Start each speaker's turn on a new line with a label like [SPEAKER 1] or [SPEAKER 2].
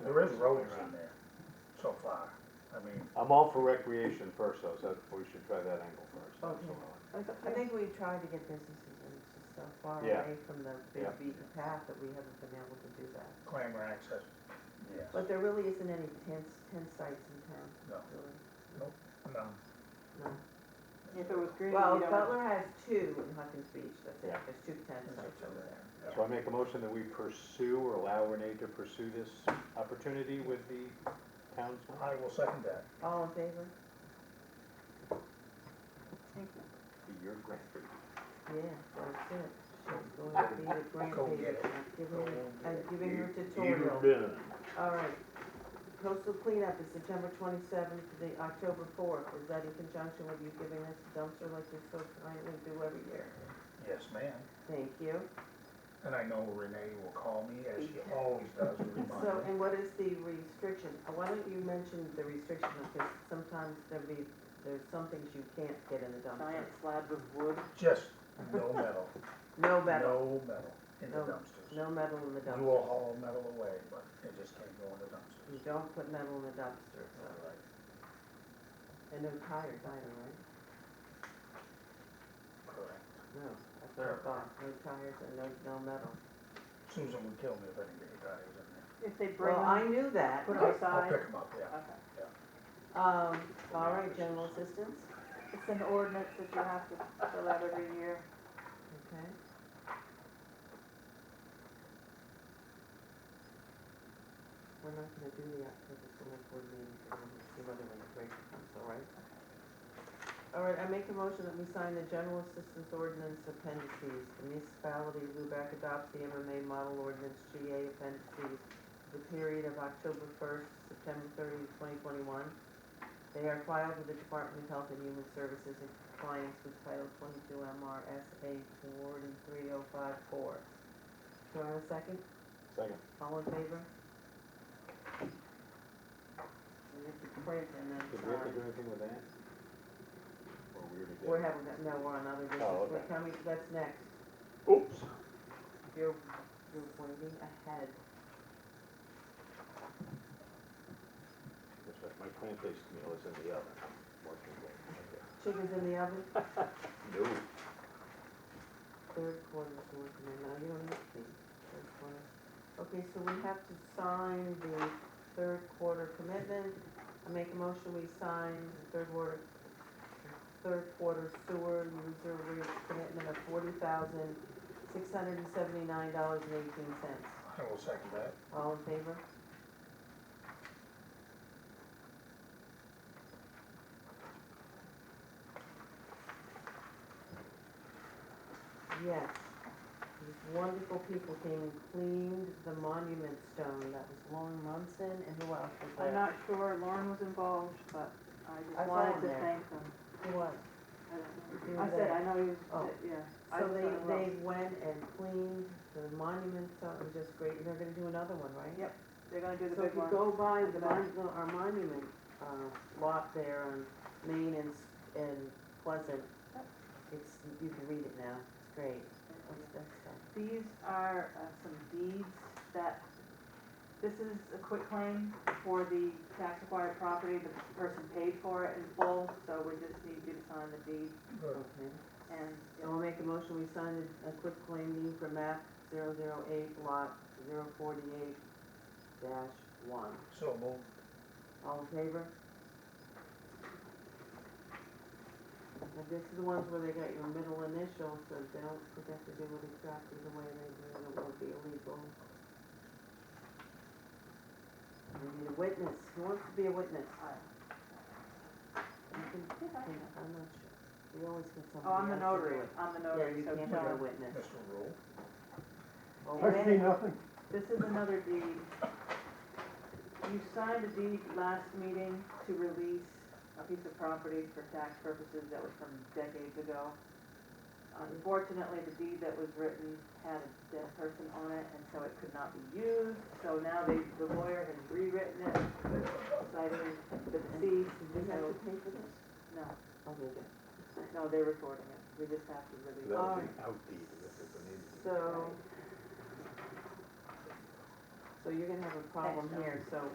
[SPEAKER 1] there is roads in there so far. I mean,
[SPEAKER 2] I'm all for recreation first though, so we should try that angle first.
[SPEAKER 1] Okay.
[SPEAKER 2] absolutely.
[SPEAKER 3] I think we tried to get businesses and it's just so far
[SPEAKER 2] Yeah.
[SPEAKER 3] away from the big
[SPEAKER 2] Yeah.
[SPEAKER 3] beaten path that we haven't been able to do that.
[SPEAKER 1] Clamor access, yes,
[SPEAKER 3] But there really isn't any tent, tent sites in town,
[SPEAKER 1] no,
[SPEAKER 3] really,
[SPEAKER 1] no.
[SPEAKER 3] no.
[SPEAKER 4] If it was green, you
[SPEAKER 3] Well,
[SPEAKER 4] don't-
[SPEAKER 3] Butler has two in Huckins Beach, that's it,
[SPEAKER 2] Yeah.
[SPEAKER 3] there's two tent
[SPEAKER 1] it's
[SPEAKER 3] sites
[SPEAKER 1] up
[SPEAKER 3] over there.
[SPEAKER 1] to
[SPEAKER 2] So I
[SPEAKER 1] there.
[SPEAKER 2] make a motion that we pursue or allow Renee to pursue this opportunity with the townsman.
[SPEAKER 3] Uh,
[SPEAKER 1] I will second that.
[SPEAKER 3] All in favor?
[SPEAKER 2] Be your grandfather.
[SPEAKER 3] Yeah, that's it. She's going to be the
[SPEAKER 1] Go
[SPEAKER 3] grandbaby.
[SPEAKER 1] get it.
[SPEAKER 3] I'm giving her, I'm giving her
[SPEAKER 2] You-
[SPEAKER 3] tutorial.
[SPEAKER 2] you done.
[SPEAKER 3] All right. Coastal cleanup is September twenty-seventh to the October fourth. Is that in conjunction with you giving us a dumpster like you so kindly do every year?
[SPEAKER 1] Yes, ma'am.
[SPEAKER 3] Thank you.
[SPEAKER 1] And I know Renee will call me, as she always does, to remind
[SPEAKER 3] So,
[SPEAKER 1] me.
[SPEAKER 3] and what is the restriction? Uh, Why don't you mention the restriction, because sometimes there be, there's some things you can't get in the dumpster.
[SPEAKER 4] giant slabs of wood.
[SPEAKER 1] Just no metal,
[SPEAKER 3] No
[SPEAKER 1] no
[SPEAKER 3] metal,
[SPEAKER 1] metal in the
[SPEAKER 3] No,
[SPEAKER 1] dumpsters.
[SPEAKER 3] no metal in the
[SPEAKER 1] We will
[SPEAKER 3] dumpster.
[SPEAKER 1] haul metal away, but it just can't go in the dumpsters.
[SPEAKER 3] You don't put metal in the dumpster, so.
[SPEAKER 1] All right.
[SPEAKER 3] And no tires either, right?
[SPEAKER 1] Correct.
[SPEAKER 3] No, that's what I thought, no tires and no, no metal.
[SPEAKER 1] Susan would kill me if anybody dies in there.
[SPEAKER 4] If they bring
[SPEAKER 3] Well, I
[SPEAKER 4] them,
[SPEAKER 3] knew that.
[SPEAKER 4] put
[SPEAKER 1] I'll-
[SPEAKER 4] them aside.
[SPEAKER 1] I'll pick them up, yeah.
[SPEAKER 4] Okay.
[SPEAKER 3] Um, all right, general assistance,
[SPEAKER 4] It's an ordinance that you have to fill out every year.
[SPEAKER 3] okay. We're not gonna do the October select board meeting, so we'll see whether we break it, that's all right? All right, I make a motion that we sign the general assistance ordinance appendices. The municipality of Lubec adopts the MMA model ordinance GA appendices for the period of October first, September 30, 2021. They are filed with the Department of Health and Human Services in compliance with Title twenty-two MRSA forty-three oh five four. Do I have a second?
[SPEAKER 2] Second.
[SPEAKER 3] All in favor? We have to print and then
[SPEAKER 2] Did we have to
[SPEAKER 3] sign.
[SPEAKER 2] do anything with that? Or we already did?
[SPEAKER 3] We're having, that- no, we're on other
[SPEAKER 2] Oh,
[SPEAKER 3] business, we're
[SPEAKER 2] okay.
[SPEAKER 3] coming, that's next.
[SPEAKER 2] Oops.
[SPEAKER 3] You're, you're waiting ahead.
[SPEAKER 2] That's right, my plant-based meal is in the oven. I'm working on
[SPEAKER 3] Chicken's in the oven,
[SPEAKER 2] it. No.
[SPEAKER 3] third quarter's working, and now you don't need to, be third quarter. Okay, so we have to sign the third quarter commitment. I make a motion, we sign the third quarter, third quarter sewer user rate commitment of forty thousand, six hundred and seventy-nine dollars and eighteen cents.
[SPEAKER 1] I will second that.
[SPEAKER 3] All in favor? Yes. These wonderful people came and cleaned the monument stone. That was Lauren Munson and who else was there?
[SPEAKER 4] I'm not sure Lauren was involved, but I
[SPEAKER 3] I
[SPEAKER 4] just
[SPEAKER 3] saw him
[SPEAKER 4] wanted to
[SPEAKER 3] there.
[SPEAKER 4] thank them.
[SPEAKER 3] Who was?
[SPEAKER 4] I don't
[SPEAKER 3] He
[SPEAKER 4] know. I
[SPEAKER 3] was
[SPEAKER 4] said,
[SPEAKER 3] there.
[SPEAKER 4] I know he was,
[SPEAKER 3] Oh.
[SPEAKER 4] yeah. I
[SPEAKER 3] So
[SPEAKER 4] just
[SPEAKER 3] they,
[SPEAKER 4] thought, well,
[SPEAKER 3] they went and cleaned the monument stone. It was just great. And they're gonna do another one, right?
[SPEAKER 4] Yep. They're gonna do the
[SPEAKER 3] So if
[SPEAKER 4] big
[SPEAKER 3] you
[SPEAKER 4] one.
[SPEAKER 3] go by the mon- the- our monument, uh, lot there on Main and, S- and Pleasant,
[SPEAKER 4] Yep.
[SPEAKER 3] it's, you can read it now, it's great, what's that stuff?
[SPEAKER 4] These are uh, some deeds that, this is a quick claim for the tax acquired property. The person paid for it in full, so we just need you to sign the deed
[SPEAKER 1] Good.
[SPEAKER 3] Okay,
[SPEAKER 4] and.
[SPEAKER 3] so I'll make a motion, we sign a, a quick claim deed for map zero zero eight lot zero forty-eight dash one.
[SPEAKER 1] So moved.
[SPEAKER 3] All in favor? Now, this is the ones where they got your middle initial, so if they don't forget to do it exactly the way they do it, it won't be illegal. We need a witness, who wants to be a witness?
[SPEAKER 4] I-
[SPEAKER 3] You can, can- I'm not sure, we always get somebody.
[SPEAKER 4] Oh, I'm the
[SPEAKER 3] else to do
[SPEAKER 4] notary,
[SPEAKER 3] it.
[SPEAKER 4] I'm the
[SPEAKER 3] Yeah,
[SPEAKER 4] notary,
[SPEAKER 3] you
[SPEAKER 4] so
[SPEAKER 3] can't
[SPEAKER 4] tell
[SPEAKER 3] have a
[SPEAKER 4] him.
[SPEAKER 3] witness.
[SPEAKER 1] Mr. Rule,
[SPEAKER 3] Oh,
[SPEAKER 5] Actually,
[SPEAKER 3] wait.
[SPEAKER 5] nothing.
[SPEAKER 4] This is another deed. You signed a deed last meeting to release a piece of property for tax purposes that was from decades ago. Unfortunately, the deed that was written had a dead person on it, and so it could not be used. So now they, the lawyer has rewritten it, citing the deceased,
[SPEAKER 3] Do we have to pay for this?
[SPEAKER 4] no,
[SPEAKER 3] Oh, we do.
[SPEAKER 4] no, they're recording it. We just have to release it.
[SPEAKER 2] That
[SPEAKER 3] Uh,
[SPEAKER 2] was
[SPEAKER 3] Alright.
[SPEAKER 2] an outdeed, this is an in.
[SPEAKER 3] So,
[SPEAKER 4] So you're gonna have a problem
[SPEAKER 3] Thanks, John.
[SPEAKER 4] here, so